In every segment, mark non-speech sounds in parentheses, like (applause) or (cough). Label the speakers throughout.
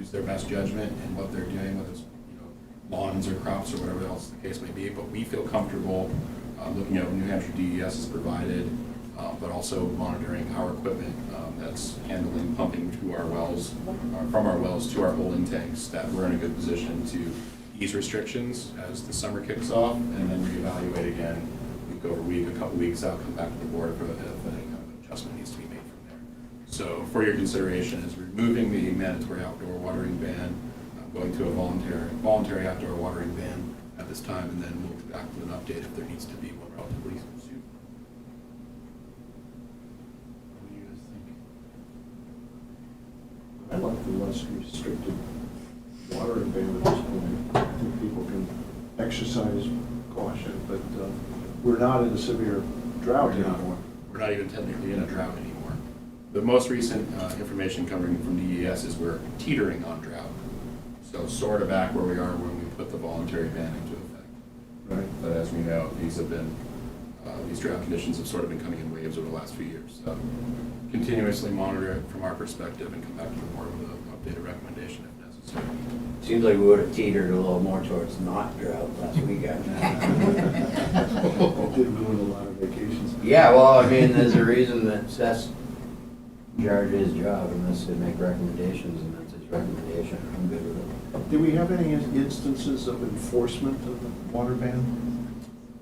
Speaker 1: it's their best judgment and what they're doing, whether it's, you know, lawns or crops or whatever else the case may be, but we feel comfortable, uh, looking at what New Hampshire DES has provided, uh, but also monitoring our equipment, um, that's handling pumping to our wells, uh, from our wells to our holding tanks, that we're in a good position to ease restrictions as the summer kicks off, and then reevaluate again, week over week, a couple weeks out, come back to the board for, if any kind of adjustment needs to be made from there. So for your consideration is removing the mandatory outdoor watering ban, uh, going to a voluntary, voluntary outdoor watering ban at this time, and then we'll be back with an update if there needs to be one relatively soon.
Speaker 2: What do you guys think?
Speaker 3: I like the less restricted water ban at this point. I think people can exercise caution, but uh, we're not in a severe drought anymore.
Speaker 1: We're not even technically in a drought anymore. The most recent uh, information coming from DES is we're teetering on drought. So sort of back where we are when we put the voluntary ban into effect.
Speaker 4: (laughs)
Speaker 3: Right.
Speaker 1: But as we know, these have been, uh, these drought conditions have sort of been coming in waves over the last few years. So continuously monitor it from our perspective and come back to the board with an updated recommendation if necessary.
Speaker 4: Seems like we would have teetered a little more towards not drought last weekend.
Speaker 3: It did ruin a lot of vacations.
Speaker 4: Yeah, well, I mean, there's a reason that Seth's charge his job and that's to make recommendations and that's his recommendation. I'm good with it.
Speaker 3: Do we have any in- instances of enforcement of the water ban?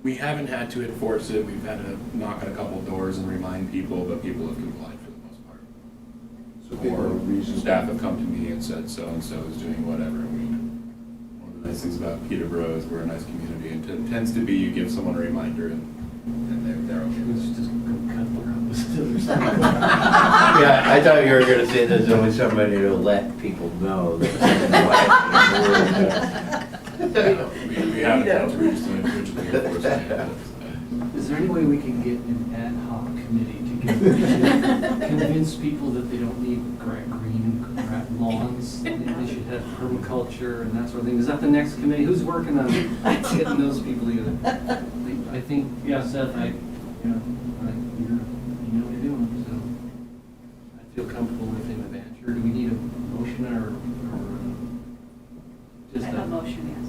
Speaker 1: We haven't had to enforce it. We've had to knock on a couple doors and remind people, but people have complied for the most part.
Speaker 3: So people are
Speaker 1: Or
Speaker 3: reasonable.
Speaker 1: staff have come to me and said so-and-so is doing whatever, and we, one of the nice things about Peterborough is we're a nice community, and it tends to be you give someone a reminder and, and they're, they're okay
Speaker 2: Let's
Speaker 1: with it.
Speaker 2: just go cut around the stairs.
Speaker 4: Yeah, I thought you were gonna say there's only somebody to let people know. that- (laughs)
Speaker 1: (laughs) No, We we haven't had to reach the original enforcement. yet,
Speaker 2: Is there any way we can get an ad hoc committee together to convince people that they don't need gra- green gra- lawns? that They should have permaculture and that sort of thing. Is that the next committee? Who's working on getting those people together? I think, yeah, Seth, I, you know, I, you're, you know what you're doing, so I feel comfortable with him adventure. Do we need a motion or, or uh,
Speaker 5: I
Speaker 2: just a?
Speaker 5: have a motion, yes.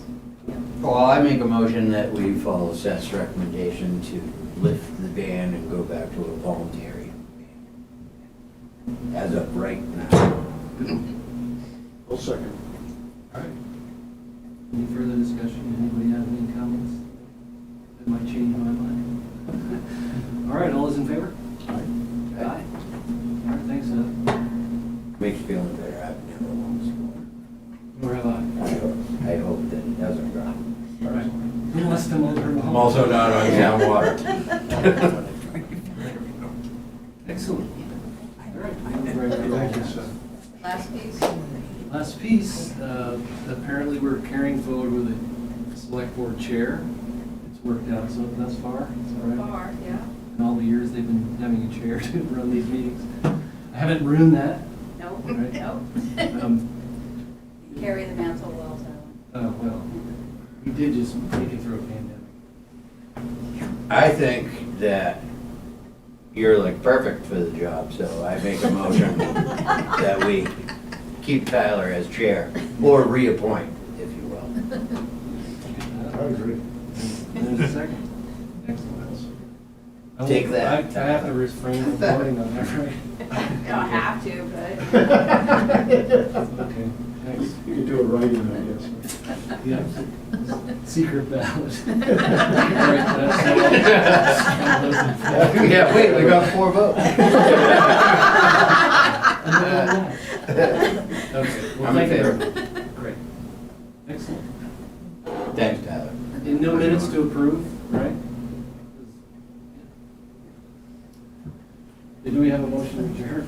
Speaker 4: Well, I make a motion that we follow Seth's recommendation to lift the ban and go back to a voluntary ban. As of right now.
Speaker 3: I'll second.
Speaker 2: All right. Any further discussion? Anybody have any comments? That might change my mind. (laughs) All right, all those in favor? Aye. Aye. All right, thanks, Seth.
Speaker 4: Makes me feel better, I've never lost
Speaker 2: Nor have I.
Speaker 4: one. I hope- I hope that it doesn't drop.
Speaker 2: All right. Unless the motor.
Speaker 4: I'm also not on town water. (laughs)
Speaker 2: Excellent. All right.
Speaker 3: Thank you, Seth.
Speaker 5: Last piece?
Speaker 2: Last piece, uh, apparently we're carrying forward with a select board chair. It's worked out so thus far, it's all right.
Speaker 5: Bar, yeah.
Speaker 2: in all the years they've been having a chair (laughs) to run these meetings. I haven't ruined that.
Speaker 5: No,
Speaker 2: Right.
Speaker 5: no. (laughs)
Speaker 2: Um,
Speaker 5: Carry the mantle well, so.
Speaker 2: uh,
Speaker 5: (laughs)
Speaker 2: well, we did just make it through a pandemic.
Speaker 4: I think that you're like perfect for the job, so I make a motion that we keep Tyler as chair, or reappoint, if you will.
Speaker 3: I agree.
Speaker 2: There's a second. Excellent. I won't-
Speaker 4: Take that.
Speaker 2: I I have to refrain from voting on that, (laughs) right?
Speaker 5: You don't have
Speaker 2: (laughs)
Speaker 5: to,
Speaker 3: (laughs)
Speaker 2: Okay, (laughs) thanks.
Speaker 3: You could do it right in, I guess.
Speaker 2: Yep. Secret (laughs) ballot. All right, that's all. All those in favor?
Speaker 4: Yeah, wait, we got four votes.
Speaker 2: (laughs)
Speaker 4: (laughs)
Speaker 2: Okay, well,
Speaker 4: I'm in
Speaker 2: thank you.
Speaker 4: favor.
Speaker 2: Great. Excellent.
Speaker 4: Thanks, Tyler.
Speaker 2: And no minutes to approve, right? Do we have a motion to adjourn?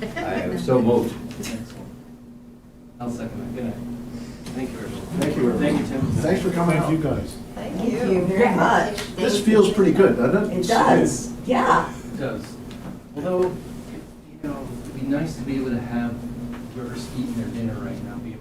Speaker 5: but.
Speaker 4: I am so moved.
Speaker 2: Excellent. I'll second that, good night. Thank you, everyone.
Speaker 3: Thank you, everyone.
Speaker 2: Thank you, Tim.
Speaker 3: Thanks for coming out, you guys.
Speaker 6: Thank you very much.
Speaker 3: This feels pretty good, doesn't it?
Speaker 6: It does, yeah.
Speaker 2: It does. Although, you know, it'd be nice to be able to have whoever's eating their dinner right now be